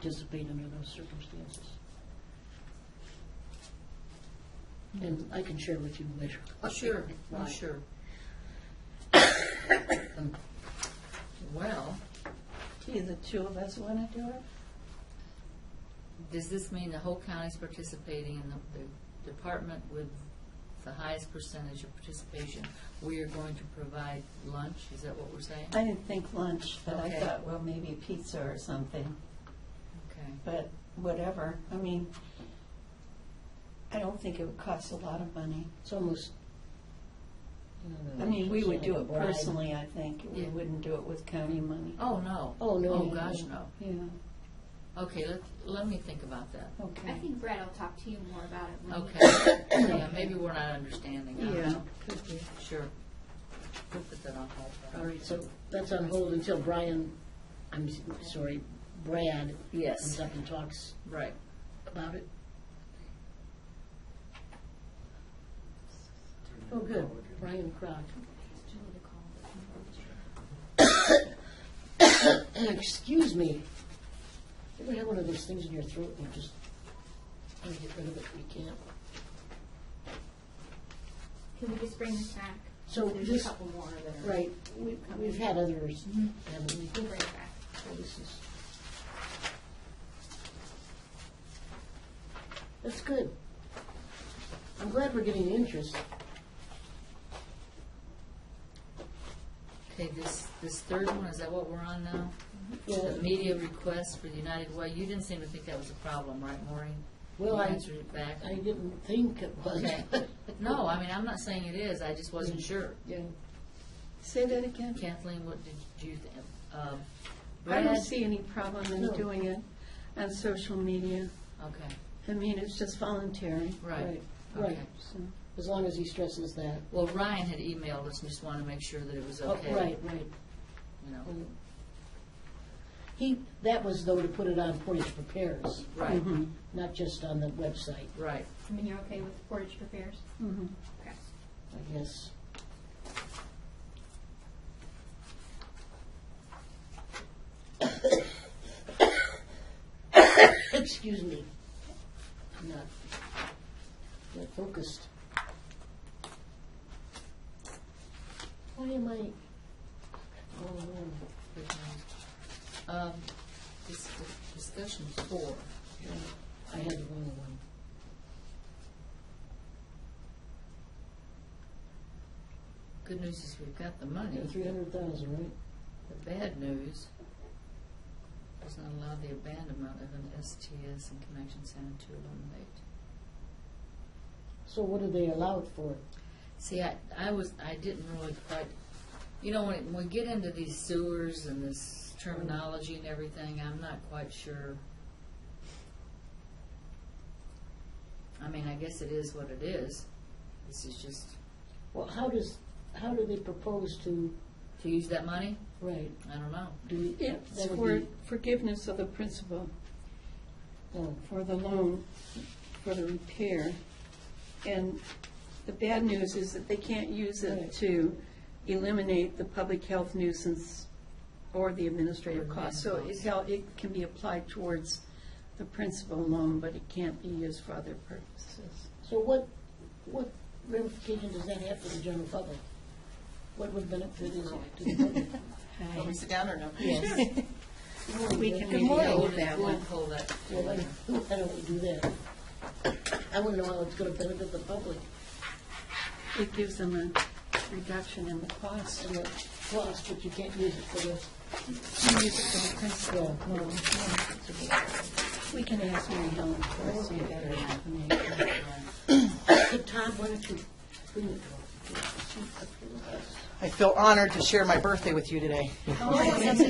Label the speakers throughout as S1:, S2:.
S1: participate under those circumstances. And I can share with you later.
S2: Oh, sure, oh,
S1: Why.
S2: sure. Well,
S3: Gee, the two of us want to do it?
S2: does this mean the whole county's participating and the- the department with the highest percentage of participation? We are going to provide lunch, is that what we're saying?
S3: I didn't think lunch, but I
S2: Okay.
S3: thought, well, maybe pizza or something,
S2: Okay,
S3: but whatever. I mean, I don't think it would cost a lot of money.
S1: It's almost.
S3: I mean, we would do
S1: Like a
S3: it
S1: bribe.
S3: personally, I think. We
S2: Yeah.
S3: wouldn't do it with county money.
S2: oh, no.
S1: Oh, no.
S2: Oh, gosh, no.
S3: Yeah,
S2: Okay, let, let me think about that.
S3: okay.
S4: I think Brett will talk to you more about it. when he-
S2: Okay, yeah, maybe we're not understanding. I don't
S3: Yeah.
S2: know. Sure. We'll put that on hold.
S1: All right, so that's on hold until Brian, I'm s- sorry, Brad comes
S2: Yes,
S1: up and talks
S2: right.
S1: about it. Oh, good, Brian Crock.
S4: It's Julie to call.
S1: Excuse me. You ever have one of those things in your throat and you just, you get rid of it, and you can't?
S4: Can we just bring this back?
S1: So
S4: There's a
S1: this,
S4: couple more that are. Mm-hmm.
S1: right, we- we've had others, haven't we?
S4: We'll bring it back.
S1: So this is. That's good. I'm glad we're getting interest.
S2: Okay, this, this third one, is that what we're on now?
S1: Yeah,
S2: The media request for the United Way, you didn't seem to think that was a problem, right, Maureen?
S1: Well,
S2: You
S1: I,
S2: answered it back?
S1: I didn't think it was.
S2: Okay. No, I mean, I'm not saying it is, I just
S1: Mm.
S2: wasn't sure.
S1: Yeah.
S3: Say that again.
S2: Kathleen, what did you, think? um,
S3: I don't
S2: Brad?
S3: see any problem in
S1: No.
S3: doing it on social media.
S2: Okay,
S3: I mean, it's just voluntary,
S2: right,
S1: Right,
S2: okay.
S3: so.
S1: as long as he stresses that.
S2: Well, Ryan had emailed us and just wanted to make sure that it was
S1: Oh,
S2: okay.
S1: Right, right.
S2: You know,
S1: Mm. He, that was though to put it on Portage Prepares,
S2: right,
S3: Mhm,
S1: Mm-hmm. not just on the website,
S2: right.
S4: I mean, you're okay with Portage Prepares?
S1: Mm-hmm.
S3: mhm.
S4: Okay.
S1: I guess. Excuse me. I'm not, not focused. Why am I? Oh, no.
S2: Good night. Um, dis- discussion four,
S1: I had the wrong one.
S2: good news is we've got the money.
S1: Yeah, three hundred thousand, right?
S2: The bad news does not allow the abandonment of an STS in Connection Center to eliminate.
S1: So what do they allow it for?
S2: See, I, I was, I didn't really quite, you know, when, it- when we get into these sewers and this terminology and everything, I'm not quite sure. I mean, I guess it is what it is. This is just,
S1: Well, how does, how do they propose to,
S2: to use that money?
S1: right,
S2: I don't know.
S1: do?
S3: It's
S1: that would
S3: for
S1: be-
S3: forgiveness of the principal uh,
S1: oh,
S3: for the loan, for the repair. And the bad news is that they can't use
S1: Right.
S3: it to eliminate the public health nuisance or the administrative cost. So it, hel- it can be applied towards the principal loan, but it can't be used for other purposes.
S1: So what, what ramification does that have for the general public? What would benefit is it to the public?
S5: Can we sit down or no?
S3: Yes. We can
S1: Good
S3: maybe
S1: morning.
S3: hold that
S2: We'll
S3: one.
S2: pull that.
S1: Well, then, why don't we do that? I want to know how it's going to benefit the public
S3: It gives them a reduction in the cost.
S1: and the cost, but you can't use it for the,
S3: We use it for the principal
S1: Yeah.
S3: loan. We can ask Mary Helen for some better information.
S1: Tom, why don't you bring it
S5: I feel honored to share my birthday with you today.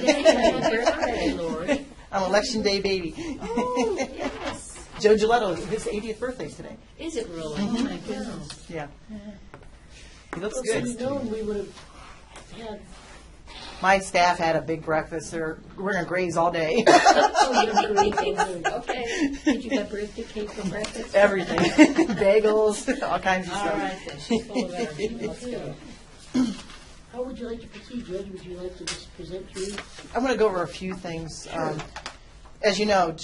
S2: Hey, Lori.
S5: I'm election day baby. Oh, Joe Gilletto, his 80th birthday is today.
S2: Is it really? Oh, my goodness.
S5: Yeah. He looks
S1: Well, if
S5: good.
S1: we'd known, we would have had,
S5: My staff had a big breakfast. They're, we're gonna graze all day,
S1: oh, you're great, you're great.
S2: Okay.
S3: Did you have birthday cake for breakfast?
S5: everything, bagels, all kinds of
S2: All right,
S5: stuff.
S2: then, she's full of energy. Let's go.
S1: How would you like to proceed, Judge? Would you like to just present your
S5: I'm gonna go over a few things. Um, As you know,